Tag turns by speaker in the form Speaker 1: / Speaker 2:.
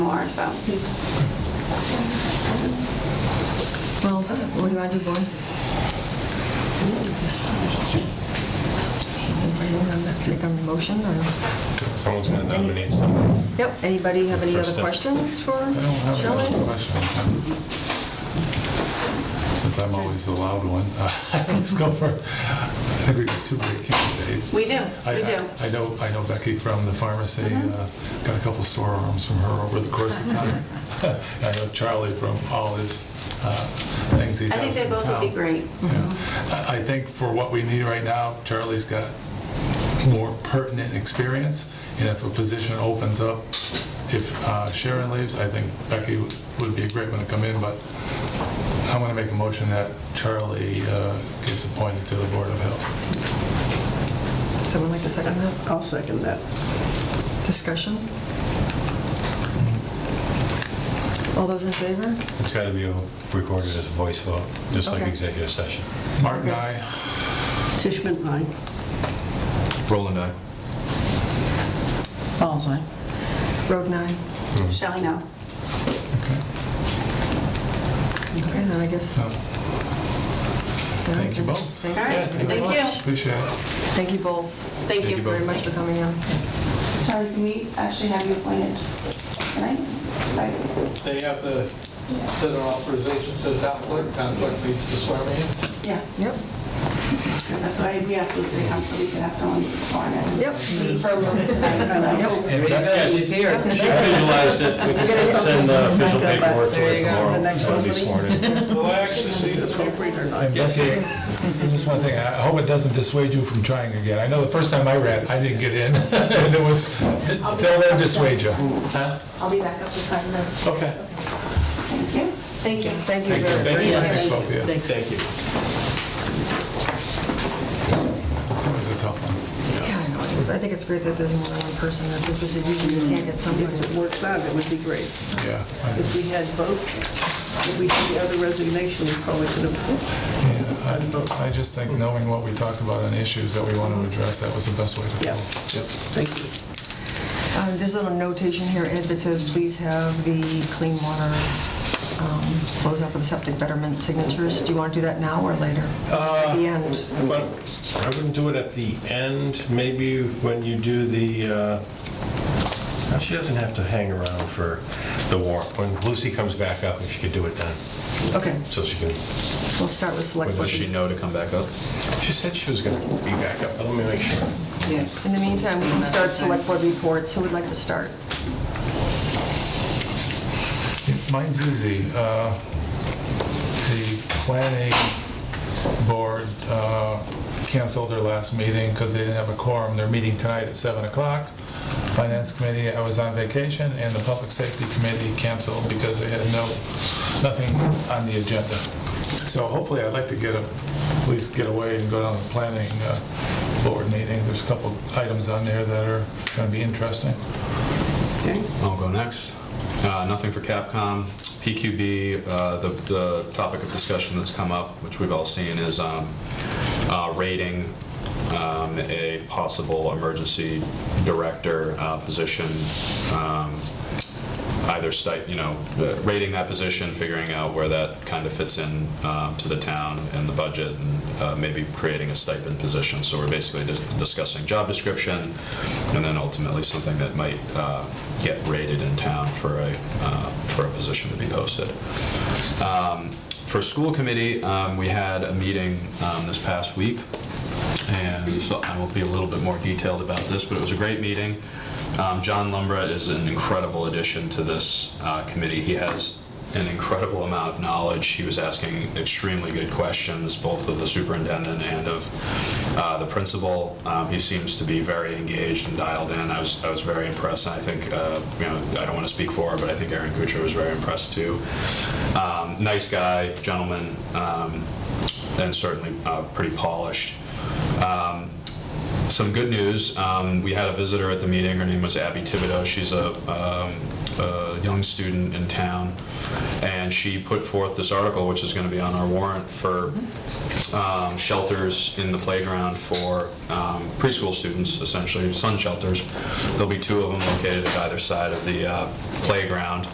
Speaker 1: so.
Speaker 2: Well, what do you want to do, boy? Make a motion or?
Speaker 3: Someone's gonna nominate someone.
Speaker 2: Yep, anybody have any other
Speaker 3: First up.
Speaker 2: questions for
Speaker 4: I don't have any other
Speaker 2: Shelley?
Speaker 4: questions. Since I'm always the loud one, let's go for, I think we've got two great candidates.
Speaker 1: We do,
Speaker 4: I-
Speaker 1: we do. Uh-huh.
Speaker 4: I I know, I know Becky from the pharmacy, uh, got a couple sore arms from her over the course of time. I know Charlie from all his uh, things he
Speaker 1: I think
Speaker 4: does
Speaker 1: they
Speaker 4: in
Speaker 1: both would be
Speaker 4: town.
Speaker 1: great.
Speaker 4: Yeah. I I think for what we need right now, Charlie's got more pertinent experience, and if a position opens up, if uh, Sharon leaves, I think Becky would- would be a great one to come in, but I'm going to make a motion that Charlie uh, gets appointed to the Board of Health.
Speaker 2: Someone like to second that?
Speaker 5: I'll second that.
Speaker 2: Discussion? All those in favor?
Speaker 3: It's gotta be recorded as a voice vote, just like
Speaker 2: Okay.
Speaker 3: executive session.
Speaker 4: Martin, I,
Speaker 5: Fishman, aye.
Speaker 6: Roland, aye.
Speaker 5: Falls, aye.
Speaker 2: Road nine.
Speaker 1: Shelley, no.
Speaker 2: Okay, then I guess.
Speaker 4: Oh, thank you both.
Speaker 2: Thank
Speaker 1: All right, thank you.
Speaker 4: appreciate it.
Speaker 2: Thank you both
Speaker 1: Thank you.
Speaker 2: very much for coming in.
Speaker 1: Charlie, can we actually have you appointed tonight? Like,
Speaker 7: They have the, set an authorization to the town clerk, town clerk needs to swear me in.
Speaker 1: Yeah,
Speaker 2: Yep,
Speaker 1: that's why we asked Lucy to come so we could have someone sworn in.
Speaker 2: yep.
Speaker 1: For a little bit tonight. so.
Speaker 3: And
Speaker 8: Yeah,
Speaker 3: Becky,
Speaker 8: she's here.
Speaker 3: she visualized it, we can send the official paperwork to
Speaker 8: There
Speaker 3: her
Speaker 8: you go.
Speaker 3: tomorrow.
Speaker 5: uh, The next
Speaker 3: That'll
Speaker 5: one,
Speaker 3: be
Speaker 5: please.
Speaker 3: sworn in.
Speaker 7: Will I actually see this paper?
Speaker 5: Appropriate or not?
Speaker 4: And Becky, just one thing, I hope it doesn't dissuade you from trying again. I know the first time I read, I didn't get in, and it was, don't let it dissuade you.
Speaker 3: Huh?
Speaker 1: I'll be back up to sign them.
Speaker 3: Okay.
Speaker 1: Thank you. Thank you.
Speaker 2: Thank you
Speaker 4: Thank you,
Speaker 2: very
Speaker 4: thank
Speaker 2: very
Speaker 4: you,
Speaker 2: much.
Speaker 4: thanks both of you.
Speaker 3: Thank you.
Speaker 4: It's always a tough one.
Speaker 2: Yeah, I know it is. I think it's great that there's more than one person that's interested. Usually you can't get somebody.
Speaker 5: If it works out, it would be great.
Speaker 4: Yeah, I
Speaker 5: If
Speaker 4: think-
Speaker 5: we had both, if we had the other resignation, we probably could have,
Speaker 4: yeah, I I just think knowing what we talked about on issues that we want to address, that was the best way to
Speaker 5: yeah.
Speaker 4: go.
Speaker 5: Thank you.
Speaker 2: Um, There's a little notation here, Ed, that says, please have the clean water um, closeout for the septic betterment signatures. Do you want to do that now or later? Just At
Speaker 6: Uh,
Speaker 2: the end?
Speaker 3: Well, I wouldn't do it at the end, maybe when you do the, uh, no, she doesn't have to hang around for the warrant. When Lucy comes back up, if she could do it then,
Speaker 2: Okay,
Speaker 3: so she can,
Speaker 2: we'll start with select.
Speaker 6: Does she know to come back up?
Speaker 3: she said she was going to be back up, but let me make sure.
Speaker 8: Yeah.
Speaker 2: In the meantime, we can start select board reports. Who would like to start?
Speaker 4: Mine's easy. Uh, The planning board uh, canceled their last meeting because they didn't have a quorum. They're meeting tonight at 7 o'clock. Finance committee, I was on vacation, and the public safety committee canceled because they had no, nothing on the agenda. So hopefully, I'd like to get, a- at least get away and go down to the planning uh, board meeting. There's a couple items on there that are going to be interesting.
Speaker 5: Okay.
Speaker 6: I'll go next. Uh, Nothing for Capcom. PQB, uh, the the topic of discussion that's come up, which we've all seen, is um, uh, rating um, a possible emergency director uh, position. um, Either state, you know, the- rating that position, figuring out where that kind of fits in um, to the town and the budget, and uh, maybe creating a stipend position. So we're basically dis- discussing job description, and then ultimately something that might uh, get rated in town for a, uh, for a position to be posted. Um, For school committee, um, we had a meeting um, this past week, and so I will be a little bit more detailed about this, but it was a great meeting. Um, John Lumbra is an incredible addition to this uh, committee. He has an incredible amount of knowledge. He was asking extremely good questions, both of the superintendent and of uh, the principal. Um, He seems to be very engaged and dialed in. I was, I was very impressed. I think, uh, you know, I don't want to speak for her, but I think Aaron Kuchar was very impressed too. Um, Nice guy, gentleman, um, and certainly uh, pretty polished. Um, some good news. Um, we had a visitor at the meeting. Her name was Abby Thibodeau. She's a, um, a young student in town, and she put forth this article, which is going to be on our warrant for um, shelters in the playground for um, preschool students, essentially sun shelters. There'll be two of them located at either side of the uh, playground.